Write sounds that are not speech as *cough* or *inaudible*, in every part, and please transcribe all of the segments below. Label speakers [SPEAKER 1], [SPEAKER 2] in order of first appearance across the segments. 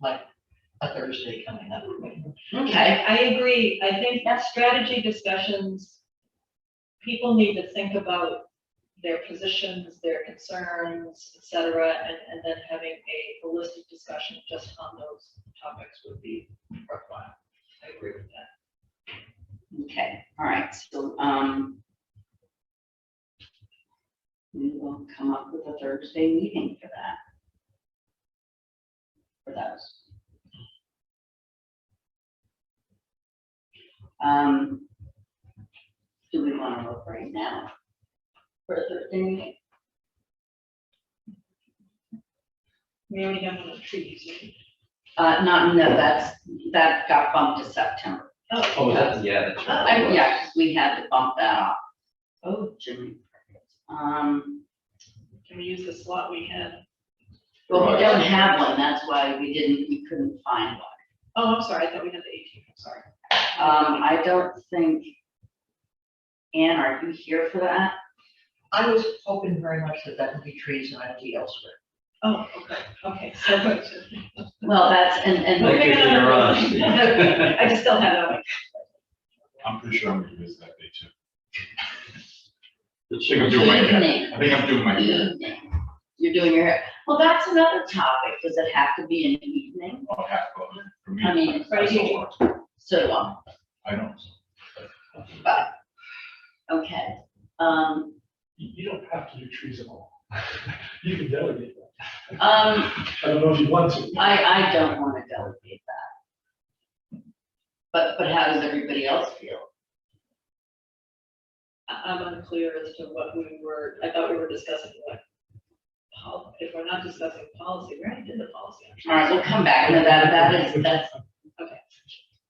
[SPEAKER 1] like a Thursday coming up.
[SPEAKER 2] Okay, I agree. I think that strategy discussions, people need to think about their positions, their concerns, et cetera, and, and then having a holistic discussion just on those topics would be worthwhile. I agree with that.
[SPEAKER 3] Okay, all right, so, um, we will come up with a Thursday meeting for that. For those. Um, do we want to look right now for a Thursday meeting?
[SPEAKER 2] We already have one trees. right?
[SPEAKER 3] Uh, not, no, that's, that got bumped to September.
[SPEAKER 2] Oh,
[SPEAKER 4] Oh, that's, yeah, that's right.
[SPEAKER 3] I, yeah, 'cause we had to bump that off. Oh, Jimmy. Um.
[SPEAKER 2] can we use the slot we had?
[SPEAKER 3] Well, we
[SPEAKER 4] Right.
[SPEAKER 3] don't have one, that's why we didn't, we couldn't find one.
[SPEAKER 2] Oh, I'm sorry, I thought we had the 18th. I'm sorry.
[SPEAKER 3] Um, I don't think, Ann, are you here for that?
[SPEAKER 1] I was hoping very much that that would be trees and I'd be elsewhere.
[SPEAKER 2] Oh, okay, okay, so much.
[SPEAKER 3] Well, that's, and,
[SPEAKER 2] Okay.
[SPEAKER 3] and,
[SPEAKER 4] Like,
[SPEAKER 3] *laughs*
[SPEAKER 4] you're on.
[SPEAKER 2] I just still have it on my
[SPEAKER 5] I'm pretty sure I'm gonna miss that day too.
[SPEAKER 4] The
[SPEAKER 5] *laughs* I think
[SPEAKER 4] chicken
[SPEAKER 5] I'm doing my hair.
[SPEAKER 3] evening,
[SPEAKER 5] I think I'm doing my hair.
[SPEAKER 3] evening. You're doing your hair, well, that's another topic, does it have to be an evening?
[SPEAKER 5] I'll have fun. For me,
[SPEAKER 3] I mean,
[SPEAKER 5] that's-
[SPEAKER 3] right
[SPEAKER 5] that's a
[SPEAKER 3] here.
[SPEAKER 5] lot.
[SPEAKER 3] So, um,
[SPEAKER 5] I don't.
[SPEAKER 3] okay, um,
[SPEAKER 6] you, you don't have to do trees at all. *laughs* You can delegate that.
[SPEAKER 3] um,
[SPEAKER 6] I don't know if you want to.
[SPEAKER 3] I, I don't wanna delegate that. But, but how does everybody else feel?
[SPEAKER 2] I- I'm unclear as to what we were, I thought we were discussing what. pol- If we're not discussing policy, we already did the policy.
[SPEAKER 3] All right, we'll come back to that, that is, that's,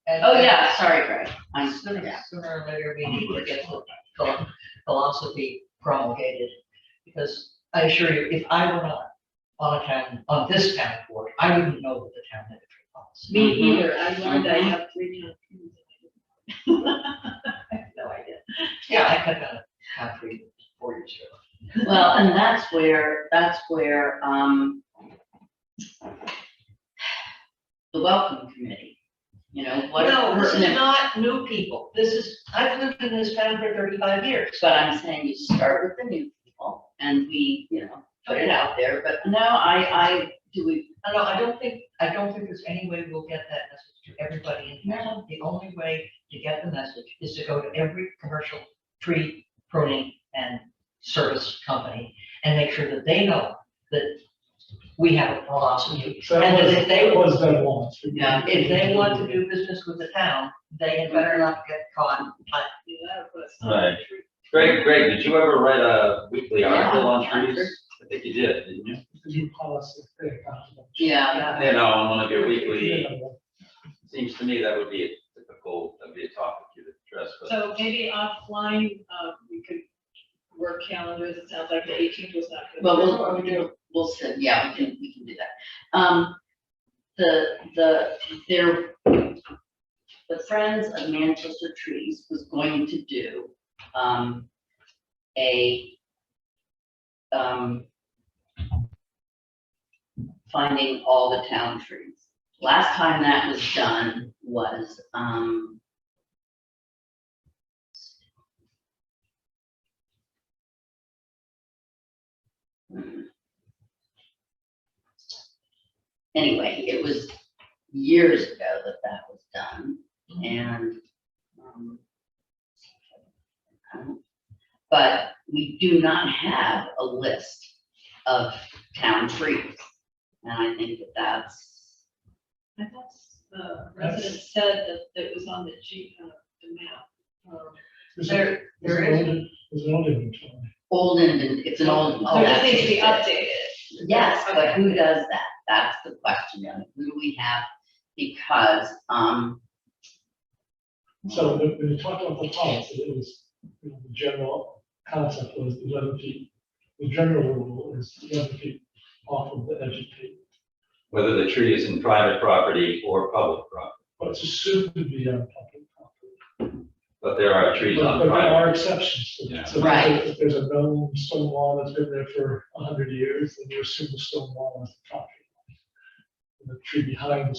[SPEAKER 1] And-
[SPEAKER 3] oh, yeah, sorry, Greg. I'm,
[SPEAKER 1] and Sooner,
[SPEAKER 3] yeah.
[SPEAKER 1] sooner or later, we need to get the phil- philosophy promulgated. Because I assure you, if I were not on a town, on this town board, I wouldn't know what the town had to policy.
[SPEAKER 3] Mhm.
[SPEAKER 2] Me either, I learned I
[SPEAKER 3] Mhm.
[SPEAKER 2] have three times. I have no idea.
[SPEAKER 1] Yeah, I cut down a town tree four years ago.
[SPEAKER 3] Well, and that's where, that's where, um, the welcome committee, you know, what.
[SPEAKER 1] No, this is
[SPEAKER 3] pertinent-
[SPEAKER 1] not new people. This is, I've lived in this town for thirty-five years.
[SPEAKER 3] But I'm saying you start with the new people and we, you know, put it out there, but no, I, I, do we,
[SPEAKER 1] I know, I don't think, I don't think there's any way we'll get that message to everybody in town. The only way to get the message is to go to every commercial tree pruning and service company and make sure that they know that we have a philosophy.
[SPEAKER 6] So
[SPEAKER 1] And
[SPEAKER 6] that was,
[SPEAKER 1] if they-
[SPEAKER 6] that was done once.
[SPEAKER 3] Yeah,
[SPEAKER 1] If they want to do business with the town, they had better not get caught. I-
[SPEAKER 2] You know, but it's
[SPEAKER 4] Right.
[SPEAKER 2] not true.
[SPEAKER 4] Greg, Greg, did you ever write a weekly article on
[SPEAKER 3] Yeah.
[SPEAKER 4] trees? I think you did, didn't you?
[SPEAKER 6] It's a new policy. thing, I don't know.
[SPEAKER 3] yeah,
[SPEAKER 4] You know, on one of your
[SPEAKER 6] Yeah,
[SPEAKER 4] weekly,
[SPEAKER 6] but-
[SPEAKER 4] seems to me that would be a typical, that'd be a topic you'd address, but
[SPEAKER 2] So maybe offline, uh, we could work calendars, it sounds like the eighteenth was not good.
[SPEAKER 3] but we'll, we'll, we'll sit, yeah, we can, we can do that. Um, the, the, there, the Friends of Manchester Trees was going to do, um, a, um, finding all the town trees. Last time that was done was, um, hmm. anyway, it was years ago that that was done,
[SPEAKER 2] Mm-hmm.
[SPEAKER 3] and, um, I don't- but we do not have a list of town trees, and I think that that's,
[SPEAKER 2] I thought, uh, residents said that it was on the G, uh, the map. Um,
[SPEAKER 6] There's a-
[SPEAKER 1] There,
[SPEAKER 6] there's
[SPEAKER 1] there
[SPEAKER 6] an
[SPEAKER 1] is,
[SPEAKER 6] old, there's an old inventory.
[SPEAKER 3] old and, and it's an old. oh,
[SPEAKER 2] So it just needs to be
[SPEAKER 3] that's-
[SPEAKER 2] updated.
[SPEAKER 3] Yes, but
[SPEAKER 2] Okay.
[SPEAKER 3] who does that? That's the question, and who do we have? Because, um,
[SPEAKER 6] So when when you talked about the policy, it was, you know, the general concept was eleven feet. The general rule is eleven feet off of the edge of the,
[SPEAKER 4] whether the tree is in private property or public property,
[SPEAKER 6] but it's assumed to be on public property.
[SPEAKER 4] but there are trees
[SPEAKER 6] But
[SPEAKER 4] on
[SPEAKER 6] but there
[SPEAKER 4] private.
[SPEAKER 6] are exceptions. to
[SPEAKER 4] Yeah.
[SPEAKER 6] that. So if
[SPEAKER 3] Right.
[SPEAKER 6] there's a- if there's a known stone wall that's been there for a hundred years, then you assume the stone wall is the property. line. the tree behind